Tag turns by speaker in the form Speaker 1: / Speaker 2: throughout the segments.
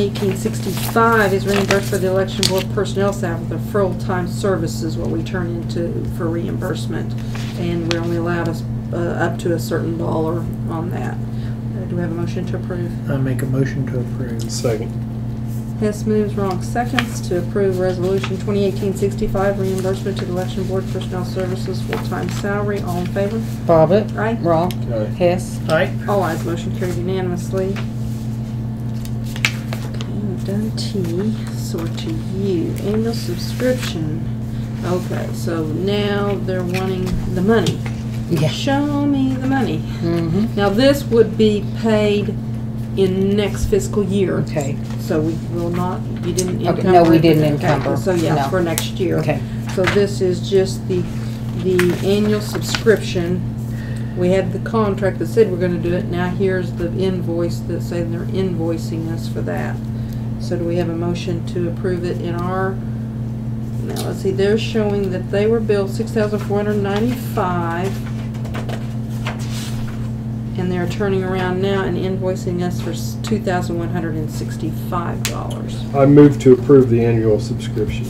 Speaker 1: eighteen sixty-five is reimbursed by the election board personnel staff with a full-time service is what we turn into for reimbursement. And we're only allowed us, uh, up to a certain dollar on that. Uh, Do we have a motion to approve?
Speaker 2: I make a motion to approve.
Speaker 3: Second.
Speaker 1: Hess moves, wrong seconds, to approve resolution 2018-65, reimbursement to the election board personnel services full-time salary. All in favor?
Speaker 4: Bobbit.
Speaker 1: Aye.
Speaker 4: Wrong.
Speaker 3: Aye.
Speaker 4: Hess.
Speaker 2: Aye.
Speaker 1: All ayes, motion carried unanimously. Okay, we've done T, so we're to U, annual subscription. Okay, so now they're wanting the money.
Speaker 4: Yeah.
Speaker 1: Show me the money.
Speaker 4: Mm-hmm.
Speaker 1: Now, this would be paid in next fiscal year.
Speaker 4: Okay.
Speaker 1: So we will not, you didn't
Speaker 4: Okay,
Speaker 1: encumber.
Speaker 4: no, we
Speaker 1: it.
Speaker 4: didn't
Speaker 1: Okay,
Speaker 4: encumber,
Speaker 1: So yeah,
Speaker 4: no.
Speaker 1: for next year.
Speaker 4: Okay.
Speaker 1: So this is just the, the annual subscription. We had the contract that said we're gonna do it, now here's the invoice that say they're invoicing us for that. So do we have a motion to approve it in our, now, let's see, they're showing that they were billed six thousand four hundred ninety-five. And they're turning around now and invoicing us for two thousand one hundred and sixty-five dollars.
Speaker 3: I move to approve the annual subscription.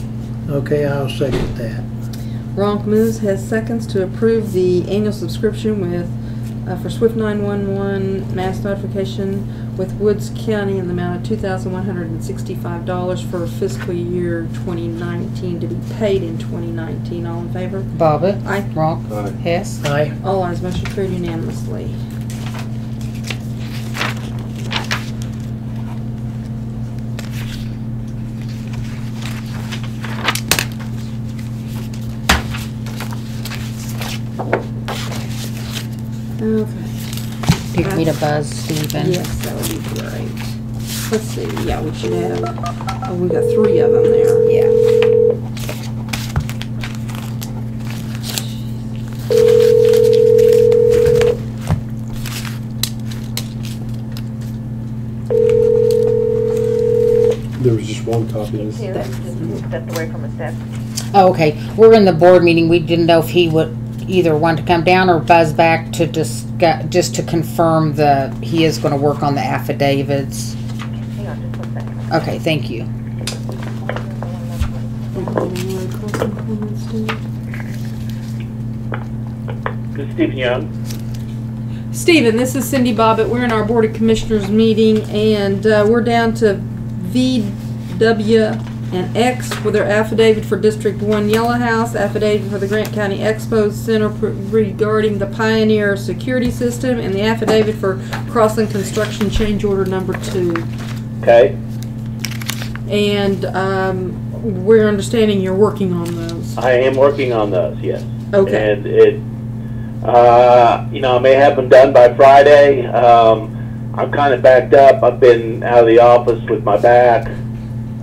Speaker 2: Okay, I'll second that.
Speaker 1: Ronk moves, has seconds to approve the annual subscription with, uh, for Swift 911 mass notification with Woods County in the amount of $2,165 for fiscal year 2019 to be paid in 2019. All in favor?
Speaker 4: Bobbit.
Speaker 1: Aye.
Speaker 4: Wrong.
Speaker 3: Aye.
Speaker 4: Hess.
Speaker 2: Aye.
Speaker 1: All ayes, motion carried unanimously. Okay.
Speaker 4: Pick me to Buzz Stephen.
Speaker 1: Yes, that would be great. Let's see, yeah, we should have, oh, we got three of them there.
Speaker 4: Yeah.
Speaker 3: There was just one copy. of this.
Speaker 5: Just stepped away from his desk.
Speaker 4: Oh, okay, we're in the board meeting, we didn't know if he would either want to come down or buzz back to discuss, just to confirm the, he is gonna work on the affidavits.
Speaker 5: Hang on just one second.
Speaker 4: Okay, thank you.
Speaker 6: This is Stephen Young.
Speaker 1: Stephen, this is Cindy Bobbitt. We're in our Board of Commissioners meeting, and uh, we're down to V, W, and X with their affidavit for District One Yellow House, affidavit for the Grant County Expo Center pr- regarding the Pioneer Security System, and the affidavit for Crossing Construction Change Order Number Two.
Speaker 6: Okay,
Speaker 1: And um, we're understanding you're working on those.
Speaker 6: I am working on those. Yes.
Speaker 1: Okay.
Speaker 6: And it, uh, you know, I may have them done by Friday. Um, I'm kind of backed up. I've been out of the office with my back.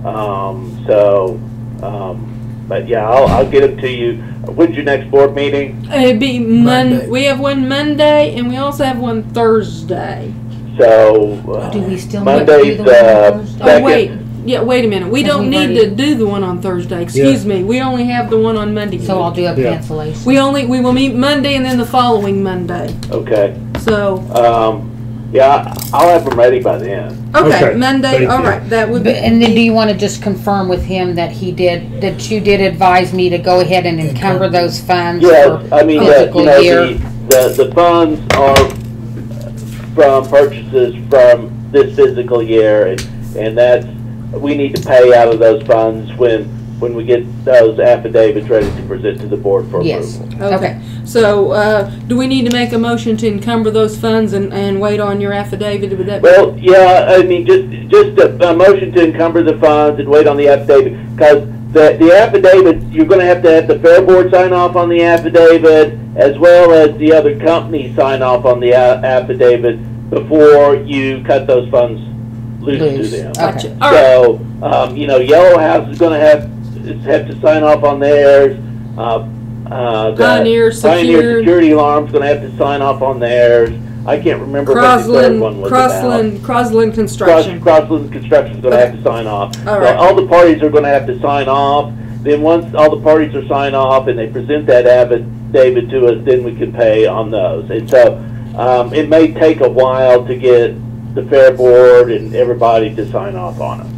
Speaker 6: Um, so, um, but yeah, I'll, I'll get them to you. When's your next board meeting?
Speaker 1: It'd be Mon,
Speaker 2: Monday.
Speaker 1: we have one Monday, and we also have one Thursday.
Speaker 6: So uh,
Speaker 4: Do we still want to do
Speaker 6: Monday's
Speaker 4: the one on
Speaker 6: uh,
Speaker 4: Thursday?
Speaker 1: Oh,
Speaker 6: second.
Speaker 1: wait, yeah, wait a minute, we
Speaker 4: Because
Speaker 1: don't
Speaker 4: we've
Speaker 1: need to do the one on Thursday, excuse me, we only have the one on Monday.
Speaker 4: So I'll do a
Speaker 3: Yeah.
Speaker 4: cancellation.
Speaker 1: We only, we will meet Monday and then the following Monday,
Speaker 6: Okay.
Speaker 1: so,
Speaker 6: Um, yeah, I'll have them ready by then.
Speaker 1: okay,
Speaker 3: Okay,
Speaker 1: Monday,
Speaker 3: thank
Speaker 1: all
Speaker 3: you.
Speaker 1: right, that would
Speaker 4: But-
Speaker 1: be.
Speaker 4: And then do you wanna just confirm with him that he did, that you did advise me to go ahead and encumber those funds?
Speaker 6: Yes,
Speaker 4: for
Speaker 6: I mean, the,
Speaker 4: fiscal
Speaker 6: you know,
Speaker 4: year?
Speaker 6: the, the, the funds are from purchases from this physical year, and, and that's, we need to pay out of those funds when, when we get those affidavits ready to present to the board for
Speaker 4: Yes.
Speaker 6: approval.
Speaker 1: Okay, so, uh, do we need to make a motion to encumber those funds and, and wait on your affidavit, would that be?
Speaker 6: Well, yeah, I mean, just, just a, a motion to encumber the funds and wait on the affidavit, because the, the affidavit, you're gonna have to have the fair board sign off on the affidavit, as well as the other company sign off on the a- affidavit before you cut those funds loose
Speaker 4: Loose.
Speaker 6: to them.
Speaker 4: Okay.
Speaker 1: Gotcha, all right,
Speaker 6: So, um, you know, Yellow House is gonna have, is- have to sign off on theirs, uh, uh, the
Speaker 1: Pioneer Secure.
Speaker 6: Pioneer Security Alarm's gonna have to sign off on theirs, I can't remember what the
Speaker 1: Crosland,
Speaker 6: third one was about.
Speaker 1: Crosland, Crosland
Speaker 6: Cross,
Speaker 1: Construction,
Speaker 6: Crossland Construction's gonna have to sign off.
Speaker 1: All
Speaker 6: So
Speaker 1: right.
Speaker 6: All the parties are gonna have to sign off, then once all the parties are signed off and they present that affidavit to us, then we can pay on those. And so, um, it may take a while to get the fair board and everybody to sign off on them.